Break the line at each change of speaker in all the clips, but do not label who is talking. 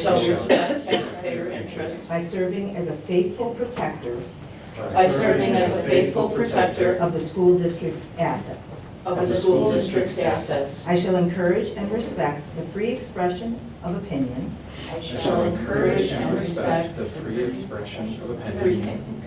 shall respect taxpayer interests
by serving as a faithful protector
by serving as a faithful protector
of the school district's assets.
of the school district's assets.
I shall encourage and respect the free expression of opinion
I
I shall encourage and respect the free expression of
free
opinion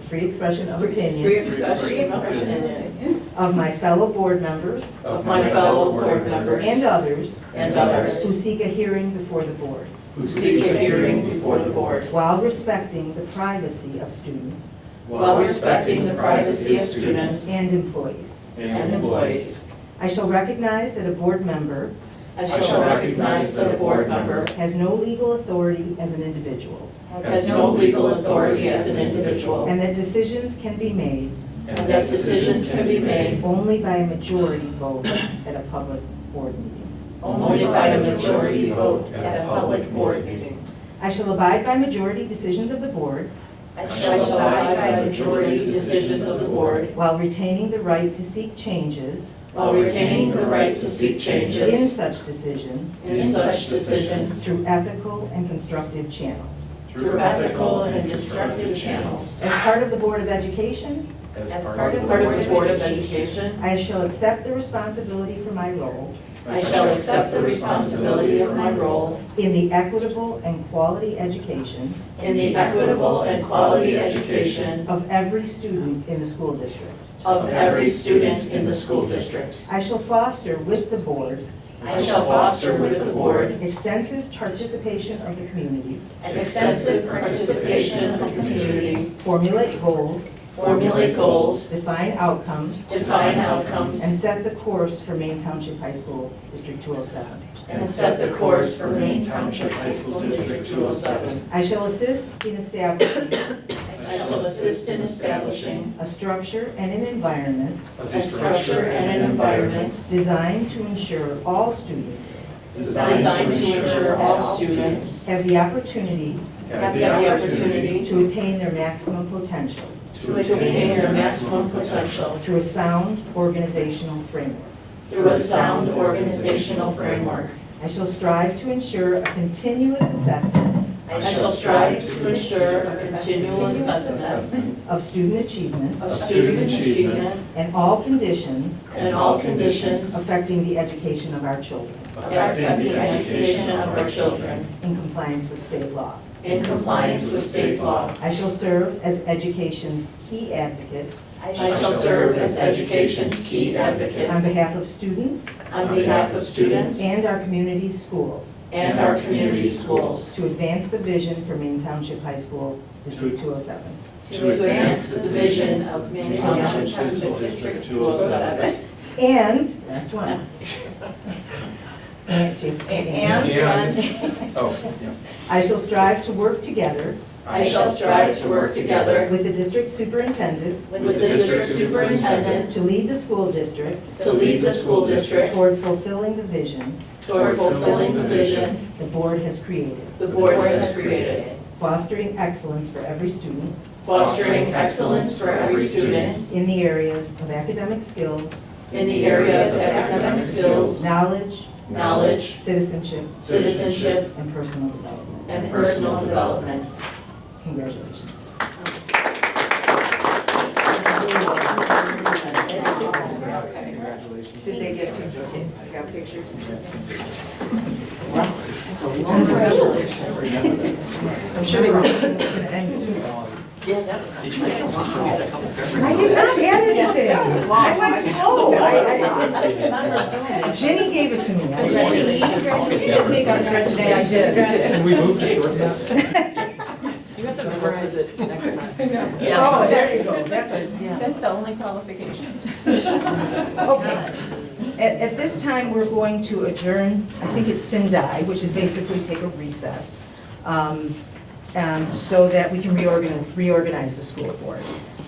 The Free expression of
free
opinion
expression of opinion
of my fellow board members
of my fellow board members
and others
and others
who seek a hearing before the board
who seek a hearing before the board
while respecting the privacy of students
while respecting the privacy of students
and employees.
and employees.
I shall recognize that a board member
I shall recognize that a board member
has no legal authority as an individual
has no legal authority as an individual
and that decisions can be made
And that decisions can be made
only by a majority vote at a public board meeting.
only by a majority vote at a public board meeting.
I shall abide by majority decisions of the board
I shall abide by majority decisions of the board
while retaining the right to seek changes
while retaining the right to seek
in
changes
such decisions
in such decisions
through ethical and constructive channels.
through ethical and constructive channels.
As part of the Board of Education,
As part of
Part of the
the board,
Board of Education,
I shall accept the responsibility for my role
I shall accept the responsibility of my role
in the equitable and quality education
in the equitable and quality education
of every student in the school district.
of every student in the school district.
I shall foster with the board
I shall foster with the board
extensive participation of the community,
an extensive participation of the community,
formulate goals,
formulate goals,
define outcomes,
define outcomes,
and set the course for Main Township High School District 207.
and set the course for Maine Township High School District 207.
I shall assist in establishing
I shall assist in establishing
a structure and an environment
a
a structure and an environment
designed to ensure all students
designed to ensure all students
have the opportunity
have the opportunity
to attain their maximum potential
to attain their maximum potential
through a sound organizational framework.
through a sound organizational framework.
I shall strive to ensure a continuous assessment
I shall strive to ensure a continuous assessment
of student achievement
of student achievement
and all conditions
and all conditions
affecting the education of our children
affecting the education of our children
in compliance with state law.
in compliance with state law.
I shall serve as education's key advocate
I shall serve as education's key
on
advocate
behalf of students
on behalf of students
and our community's schools
and our community schools
to advance the vision for Main Township High School District 207.
to advance the vision of Maine Township High School District 207.
And, last one. And, Chief, say and.
And, and
Oh, yeah.
I shall strive to work together
I shall strive to work together
with the district superintendent
with the district superintendent
to lead the school district
to lead the school district
toward fulfilling the vision
toward fulfilling the vision
the board has created,
the board has created,
fostering excellence for every student
fostering excellence for every student
in the areas of academic skills,
in the areas of academic skills,
knowledge,
knowledge,
citizenship,
citizenship,
and personal development.
and personal development.
Congratulations.
Did they get pictures? They got pictures? I'm sure they were hoping it was gonna end soon. I did not add anything. I went slow. I- I- Jenny gave it to me. I-
Congratulations.
Just make up for it today, I did.
Can we move to short nap?
You have to memorize it next time.
Oh, there you go. That's a,
That's the only qualification.
okay.
At, at this time, we're going to adjourn, I think it's Sindai, which is basically take a recess, um, um, so that we can reorganize, reorganize the school board.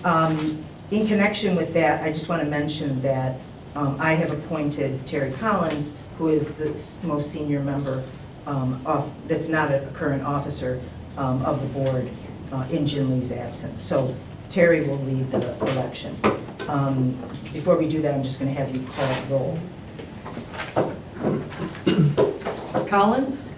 Um, In connection with that, I just want to mention that um, I have appointed Terry Collins, who is the s- most senior member um, of, that's not a current officer um, of the board uh, in Jin Lee's absence. So Terry will lead the election. Um, Before we do that, I'm just going to have you call roll.
Collins?